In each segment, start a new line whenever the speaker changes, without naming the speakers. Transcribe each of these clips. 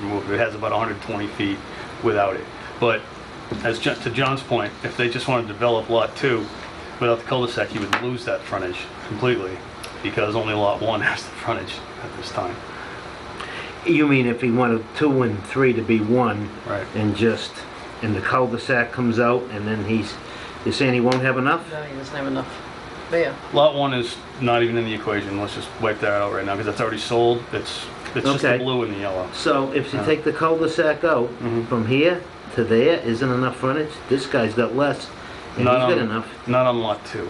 removed. It has about 120 feet without it. But as just to John's point, if they just wanted to develop Lot 2 without the cul-de-sac, you would lose that frontage completely because only Lot 1 has the frontage at this time.
You mean if he wanted two and three to be one?
Right.
And just, and the cul-de-sac comes out, and then he's, you're saying he won't have enough?
No, there's not enough there.
Lot 1 is not even in the equation. Let's just wipe that out right now because that's already sold. It's, it's just the
Okay.
blue and the yellow.
So if you
Yeah.
take the cul-de-sac out,
Mhm.
from here to there, isn't enough frontage? This guy's got less, and he's
Not
got
on-
enough.
Not on Lot 2.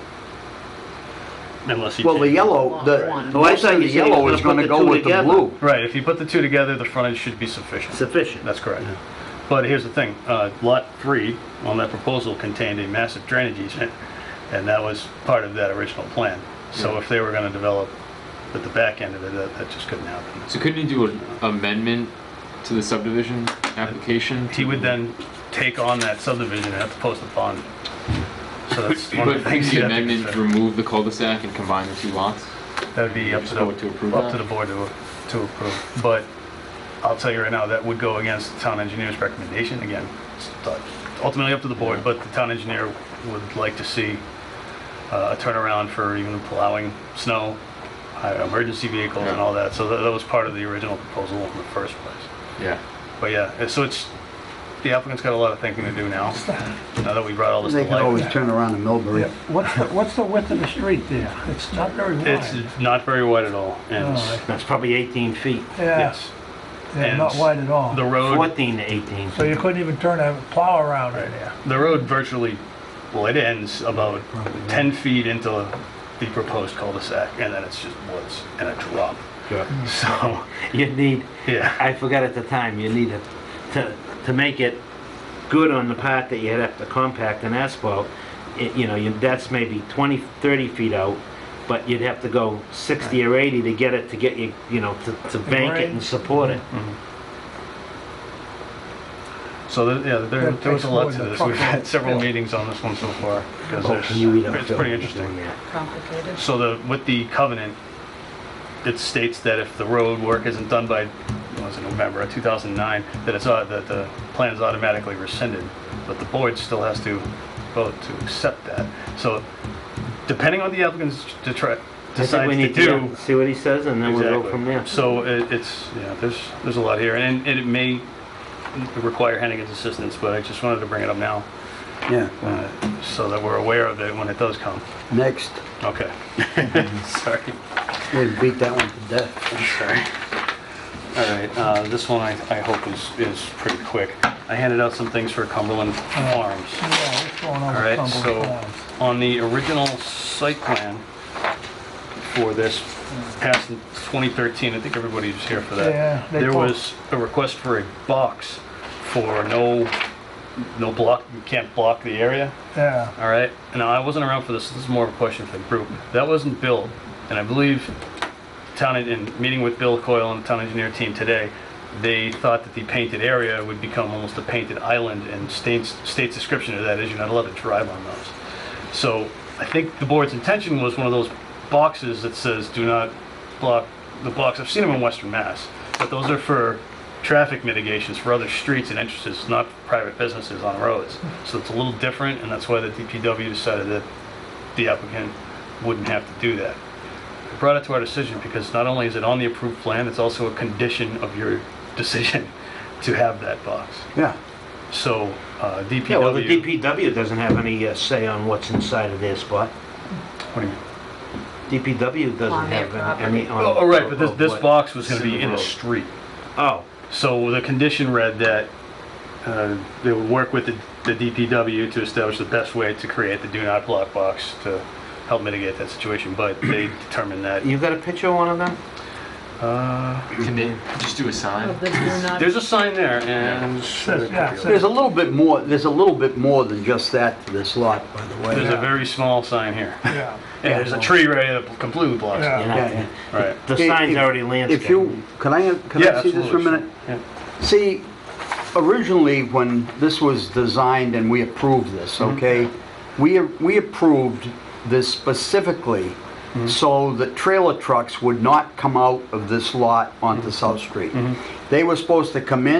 Unless you...
Well, the
change-
yellow, the,
Lot one.
Oh, I
most
thought
of
you
the
said you
yellow
were
is
gonna
gonna
put
go
the two
with the
together.
blue.
Right, if you put the two together, the frontage should be sufficient.
Sufficient.
That's correct. But here's the thing, uh, Lot 3 on that proposal contained a massive drainage easement, and that was part of that original plan. So if they were going to develop at the back end of it, that that just couldn't happen.
So couldn't he do an amendment to the subdivision application?
He would then take on that subdivision and have to post a bond. So that's one of
But
the things you
the
have to
amendment
consider.
remove the cul-de-sac and combine the two lots?
That'd be up to
Just
the,
vote to approve
up to
that?
the board to to approve. But I'll tell you right now, that would go against the town engineer's recommendation. Again, it's ultimately up to the board, but the town engineer would like to see uh, a turnaround for even plowing snow, uh, emergency vehicles and all that. So that that was part of the original proposal in the first place.
Yeah.
But yeah, eh, so it's, the applicant's got a lot of thinking to do now, now that we brought all this to
They can always
light.
turn around in Millbury.
What's the, what's the width of the street there? It's not very wide.
It's not very wide at all,
Oh,
and,
All right.
That's probably 18 feet,
Yeah,
yes,
yeah, not
and
wide at all.
the road...
14 to 18.
So you couldn't even turn a plow around
Right,
it.
yeah. The road virtually, well, it ends about 10 feet into the proposed cul-de-sac, and then it's just woods and a drop. So,
You need,
yeah,
I forgot at the time, you need to, to, to make it good on the part that you have to compact and asphalt, it- you know, you- that's maybe 20, 30 feet out, but you'd have to go 60 or 80 to get it, to get you, you know, to, to bank it and support it.
Mm-hmm. so, there- yeah, there
That
there was a
takes
lot
more
to
than a
this. We've
truck.
had several meetings on this one so far, because
Oh, can you read up
it's
Phil?
pretty interesting.
Complicated.
So the, with the covenant, it states that if the road work isn't done by, what was it November of 2009, that it's, au- that the plan is automatically rescinded, but the board still has to vote to accept that. So depending on the applicant's detra-
I think
decides
we
to
need
do.
See what he says, and then we'll go
Exactly.
from there.
So it- it's, yeah, there's, there's a lot here, and and it may require Hennigan's assistance, but I just wanted to bring it up now,
Yeah,
uh, so that we're aware of it when it does come.
next,
Okay. Sorry.
they beat that one to death.
I'm sorry. All right, uh, this one I I hope is is pretty quick. I handed out some things for Cumberland Farms.
Yeah, what's going on
All
with
right,
Cumberland
so
Farms?
on the original site plan for this, past 2013, I think everybody was here for that.
Yeah, they
There
talked.
was a request for a box for no, no block, you can't block the area.
Yeah,
All right. Now I wasn't around for this. This is more of a question for the group. That wasn't Bill, and I believe town en- in meeting with Bill Coyle and the town engineer team today, they thought that the painted area would become almost a painted island, and state's state's description of that is you're not allowed to drive on those. So I think the board's intention was one of those boxes that says do not block the blocks. I've seen them in Western Mass, but those are for traffic mitigations for other streets and entrances, not for private businesses on roads. So it's a little different, and that's why the DPW decided that the applicant wouldn't have to do that. I brought it to our decision because not only is it on the approved plan, it's also a condition of your decision to have that box.
Yeah,
So uh, DPW.
Yeah, well, the DPW doesn't have any uh, say on what's inside of their spot.
What do you mean?
DPW doesn't
On their
have any- any. on-
Oh, oh, right, but this, this
of what-
box was going to be
Civil
in the
road.
street.
Oh,
So the condition read that uh, they would work with the the DPW to establish the best way to create the do not block box to help mitigate that situation, but they determined that,
you got a picture of one of them?
uh,
Can they just do a sign?
Of the do not.
there's a sign there and.
Says- yeah, it
there's a little bit more, there's a little bit more than just that to this lot, by the
There's
way.
a very small sign here.
yeah.
And there's a tree right here that completely blocks it.
Yeah.
You're not
Yeah,
gonna-
yeah.
Right.
The
If-
sign's
if-
already
If
landscaped.
you, can I, can
Yeah,
I see this for a
absolutely.
minute?
Yeah.
See, originally, when this was designed and
Mm-hmm.
we approved this, okay, we, we approved this specifically
Mm-hmm.
so that
Mm-hmm.
trailer trucks would not come out of this lot onto South Street. They were supposed to come in.